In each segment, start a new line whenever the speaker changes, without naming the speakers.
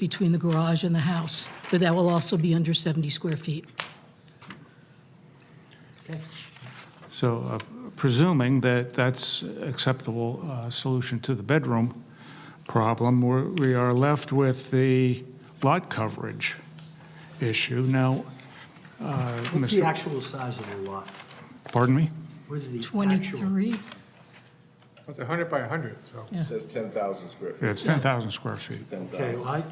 between the garage and the house, but that will also be under 70 square feet.
So uh, presuming that that's acceptable uh, solution to the bedroom problem, we're- we are left with the lot coverage issue. Now, uh,
What's the
Mr.
actual size of the lot?
Pardon me?
What is the actual?
23?
Well, It's 100 by 100, so.
Yeah.
Says 10,000 square
Yeah,
feet.
It's 10,000 square feet.
10,000.
Okay, well, I,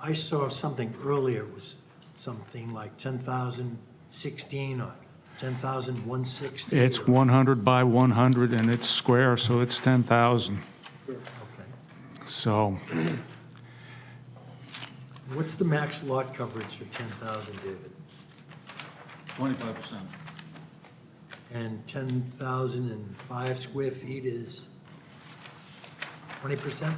I saw something earlier, it was something like 10,016 or 10,160.
It's 100 by 100, and it's square, so it's 10,000.
Okay.
So
What's the max lot coverage for 10,000, David?
25%.
And 10,005 square feet is 20%?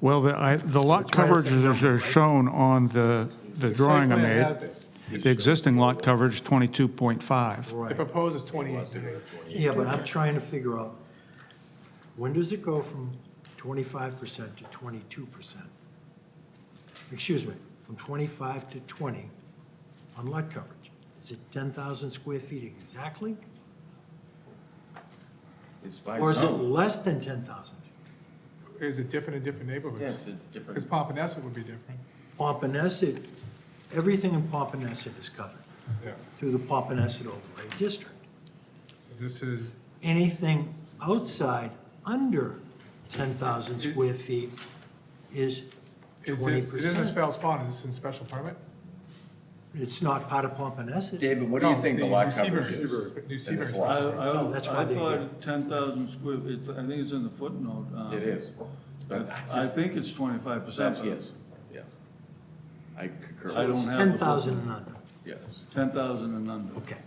Well, the, I, the lot
It's right at
coverage
that
is
number,
are
right?
shown on the, the drawing I
plan
made.
has it.
The existing lot coverage is 22.5.
The
Right.
proposed is 28.
Yeah, but I'm trying to figure out, when does it go from 25% to 22%? Excuse me, from 25 to 20 on lot coverage? Is it 10,000 square feet exactly?
It's by
Or is it
zone.
less than 10,000?
Is it different in different neighborhoods?
Yeah, it's a
Because
different,
Pompanesett would be different,
Pompanesett, everything in Pompanesett is covered
yeah.
through the Pompanesett overlay district.
So This is,
Anything outside under 10,000 square feet is
is this,
20%.
it isn't Fells Pond, is this in special permit?
It's not part of Pompanesett.
David, what do you
No,
think the
the
lot
New Seabury-
coverage is?
New
in
Seabury
this
I,
lot?
I,
No, that's why
I
they-
thought 10,000 square, it's- I think it's in the footnote. um,
It is. But
I think it's 25%.
That's,
but
yes, yeah. I concur.
I
It's
don't have the
10,000 and under.
Yes.
10,000 and under.
Okay.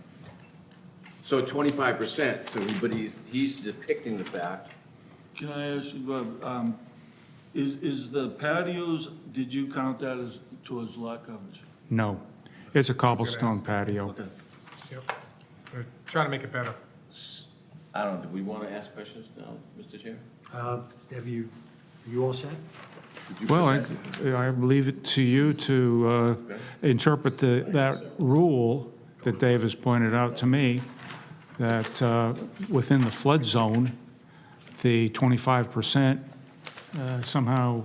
So 25%, so, he- but he's, he's depicting the fact,
Can I ask you, Bob, um, is, is the patios, did you count that as towards lot coverage?
No, it's a cobblestone patio.
Okay.
Yep. We're Trying to make it better.
I don't, know, do we want to ask questions now, Mr. Chair?
Uh, Have you, are you all set?
Did you
Well,
present it?
I, I leave it to you to uh, interpret the, that rule that Dave has pointed out to me, that uh, within the flood zone, the 25% uh, somehow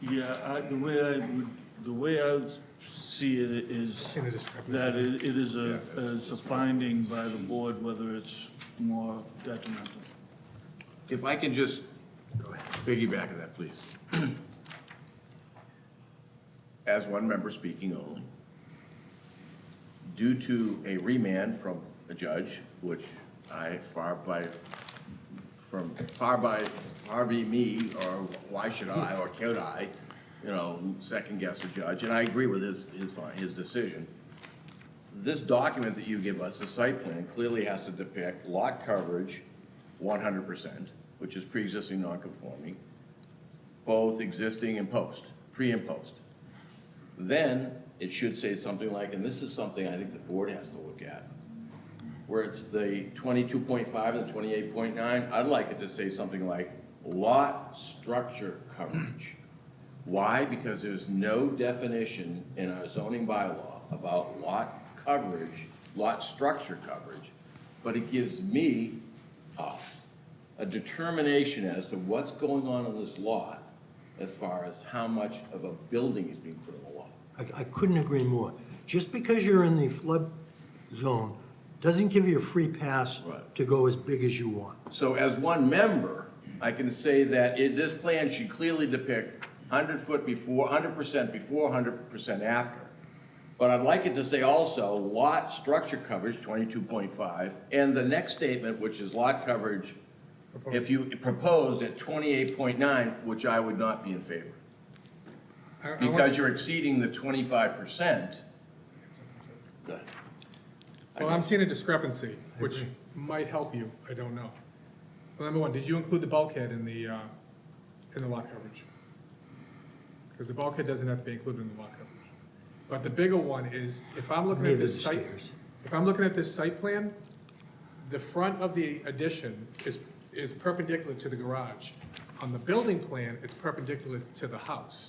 Yeah, I, the way I would, the way I would see it is
In the description.
that it it is a, is a finding by the board whether it's more detrimental.
If I can just
Go ahead.
piggyback on that, please. As one member speaking only. Due to a remand from a judge, which I far by, from far by, far be me, or why should I, or could I, you know, second guess a judge, and I agree with his, his, fi- his decision this document that you give us, the site plan, clearly has to depict lot coverage one hundred percent, which is pre-existing non-conforming, both existing and post, pre and post. Then it should say something like, and this is something I think the board has to look at, where it's the twenty-two point five and twenty-eight point nine, I'd like it to say something like lot structure coverage. Why? Because there's no definition in our zoning bylaw about lot coverage, lot structure coverage, but it gives me, us, a determination as to what's going on in this lot as far as how much of a building is being put on the lot.
I I couldn't agree more. Just because you're in the flood zone doesn't give you a free pass
Right.
to go as big as you want.
So as one member, I can say that it, this plan should clearly depict hundred foot before, hundred percent before, hundred percent after. But I'd like it to say also lot structure coverage, twenty-two point five, and the next statement, which is lot coverage, if you proposed at twenty-eight point nine, which I would not be in favor.
I- I want-
Because you're exceeding the twenty-five percent.
Well, I'm seeing a discrepancy, which might help you, I don't know. Well, Number one, did you include the bulkhead in the, uh, in the lot coverage? Because the bulkhead doesn't have to be included in the lot coverage. But the bigger one is, if I'm looking at
Neither
this site,
stairs.
if I'm looking at this site plan, the front of the addition is, is perpendicular to the garage. on the building plan, it's perpendicular to the house.